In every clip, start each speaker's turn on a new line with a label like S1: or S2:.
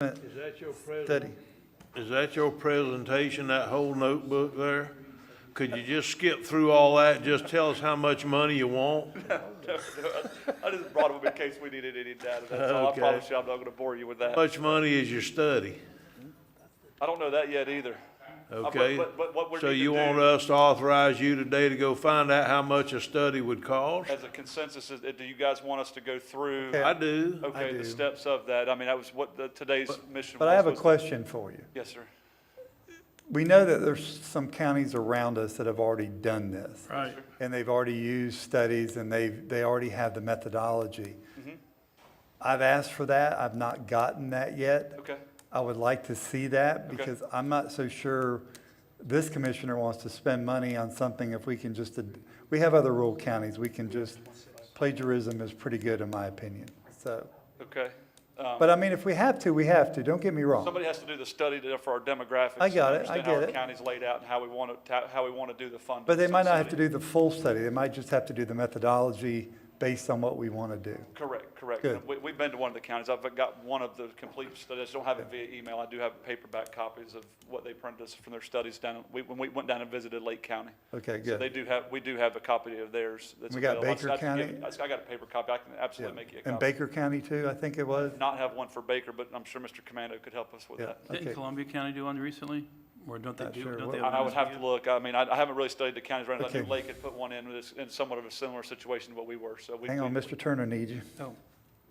S1: Assessment
S2: Is that your present,
S1: Study.
S2: is that your presentation, that whole notebook there? Could you just skip through all that, just tell us how much money you want?
S3: I just brought them in case we needed any data, that's all. I
S2: Okay.
S3: promise you, I'm not gonna bore you with
S2: How
S3: that.
S2: much money is your study,
S3: I don't know that yet either. Uh, but-
S2: okay?
S3: but- but what we
S2: So
S3: need to
S2: you want
S3: do-
S2: us to authorize you today to go find out how much a study would cost?
S3: As a consensus, is, do you guys want us to go through?
S2: I do.
S3: Okay,
S1: do.
S3: the steps of that, I mean, that was what the, today's mission was.
S1: But I have a
S3: was-
S1: question for you.
S3: Yes, sir.
S1: We know that there's some counties around us that have already done this.
S2: Right.
S1: And they've already used studies and they've, they already have the methodology.
S3: Mm-hmm.
S1: I've asked for that. I've not gotten that yet.
S3: Okay,
S1: I would like to see that because I'm not so sure this commissioner wants to spend money on something if we can just, ad- we have other rural counties, we can just, plagiarism is pretty good in my opinion, so.
S3: okay. Um,
S1: But I mean, if we have to, we have to, don't get me wrong.
S3: Somebody has to do the study to- for our demographics.
S1: I got
S3: and
S1: it, I
S3: Understand how
S1: get
S3: our
S1: it.
S3: county's laid out and how we want to, how we want to do the funding.
S1: But they
S3: So
S1: might not have to
S3: somebody-
S1: do the full study, they might just have to do the methodology based on what we want to do.
S3: Correct, correct.
S1: Good.
S3: We, we've been to one of the counties. I've got one of the complete studies. I don't have it via email. I do have paperback copies of what they printed us from their studies down, we, when we went down and visited Lake County.
S1: Okay,
S3: So they
S1: good.
S3: do have, we do have a copy of theirs. that's
S1: We got
S3: available. I just
S1: Baker
S3: got to give-
S1: County?
S3: I just- I got a paper copy. I can
S1: Yeah.
S3: absolutely make you a
S1: And
S3: copy.
S1: Baker County too, I think it was?
S3: Not have one for Baker, but I'm sure Mr. Commando could help us with
S1: Yeah,
S3: that.
S1: okay.
S4: Didn't Columbia County do one recently? Or don't they
S1: Not
S4: do,
S1: sure
S4: don't
S1: what-
S4: they?
S3: I I
S4: one
S3: would
S4: this
S3: have
S4: year?
S3: to look. I mean, I, I haven't really studied the counties around. I knew
S1: Okay.
S3: Lake had put one in, but it's in somewhat of a similar situation to what we were, so we.
S1: Hang on,
S3: we-
S1: Mr. Turner needs you.
S4: Oh,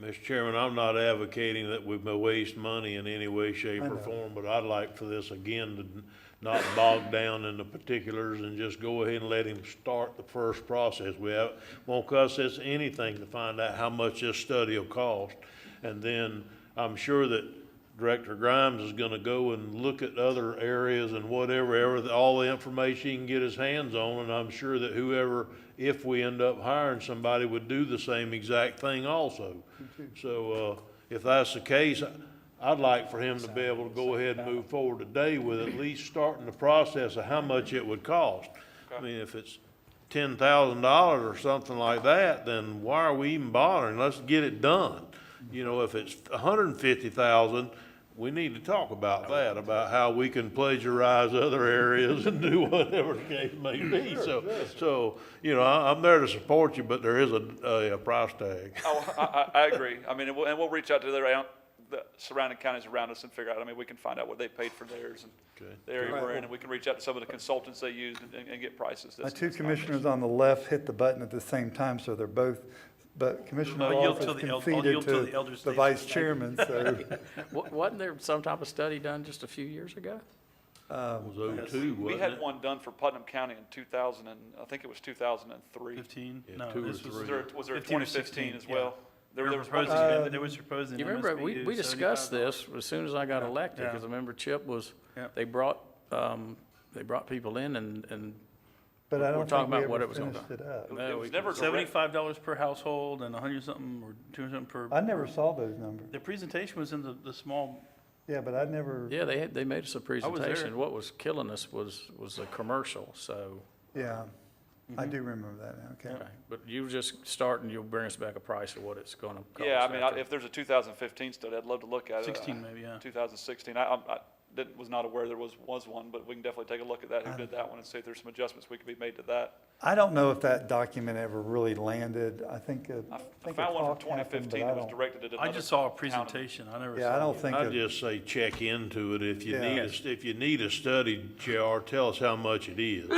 S2: Mr. Chairman, I'm not advocating that we waste money in any way, shape,
S1: I
S2: or
S1: know.
S2: form, but I'd like for this again to n- not bog down in the particulars and just go ahead and let him start the first process. We have, won't cost us anything to find out how much this study will cost. And then I'm sure that Director Grimes is gonna go and look at other areas and whatever, ever, all the information he can get his hands on, and I'm sure that whoever, if we end up hiring somebody, would do the same exact thing also. So, uh, if that's the case, I'd like for him to be able to go ahead and move forward today with at least starting the process of how much it would cost. I mean, if it's ten thousand dollars or something like that, then why are we even bothering? Let's get it done. You know, if it's a hundred and fifty thousand, we need to talk about that, about how we can plagiarize other areas and do whatever the case may be. So, so, you know, I, I'm there to support you, but there is a, a, a price tag.
S3: Oh, I, I, I agree. I mean, and we'll, and we'll reach out to their, out- the surrounding counties around us and figure out, I mean, we can find out what they paid for theirs and
S2: Okay.
S3: the area we're in, and we can reach out to some of the consultants they used and- and, and get prices.
S1: My
S3: That's-
S1: two
S3: that's not an issue.
S1: commissioners on the left hit the button at the same time, so they're both, but Commissioner
S4: I'll yield
S1: Rolfe has
S4: to the el- I'll
S1: conceded
S4: yield to the
S1: to
S4: elder
S1: the
S4: statesman.
S1: vice chairman, so.
S5: Wa- Wasn't there some type of study done just a few years ago?
S2: It was oh two,
S3: We
S2: wasn't
S3: had
S2: it?
S3: one done for Putnam County in two thousand and, I think it was two thousand and three.
S4: Fifteen?
S2: Yeah,
S4: No,
S2: two or
S4: this was.
S2: three.
S3: Was there, was there
S4: 15
S3: twenty
S4: or
S3: fifteen
S4: 16,
S3: as well?
S4: yeah.
S3: There,
S4: They
S3: there
S4: were
S3: was one-
S4: proposing, that- they were proposing.
S5: You remember, we, we discussed this as soon as I got elected, because
S4: Yeah.
S5: I remember Chip was,
S4: Yeah.
S5: they brought, um, they brought people in and, and
S1: But I
S5: We're
S1: don't
S5: talking
S1: think we
S5: about what
S1: ever
S5: it was gonna
S1: finished it up.
S5: No,
S3: It
S5: we
S3: was
S5: can-
S3: never direct,
S4: Seventy-five dollars per household and a hundred something or two hundred something
S1: I
S4: per,
S1: never saw those numbers.
S4: the presentation was in the, the small,
S1: Yeah, but I never,
S5: yeah, they had, they made us a
S4: there.
S5: presentation. What was killing us was, was a commercial, so.
S1: yeah,
S5: Mm-hmm.
S1: I do remember that, now, okay.
S5: okay. But you just start and you'll bring us back a price of what it's gonna cost.
S3: yeah, I mean, I-
S5: after.
S3: if there's a two thousand fifteen study, I'd love to look at it.
S4: sixteen maybe, yeah.
S3: Two thousand sixteen, I, I'm- I didn't, was not aware there was, was one, but we can definitely take a look at that, who did that one, and see if there's some adjustments we could be made to that.
S1: I don't know if that document ever really landed. I think, uh, I
S3: I f- I
S1: think a
S3: found one from
S1: talk
S3: twenty
S1: happened, but
S3: fifteen
S1: I
S3: that was
S1: don't.
S3: directed at another.
S4: I just saw a
S3: town.
S4: presentation. I never saw.
S1: Yeah, I don't
S4: it.
S1: think,
S2: I'd
S1: it-
S2: just say check into it. If you
S1: Yeah.
S2: need, a- if you need a study, JR, tell us how much it is.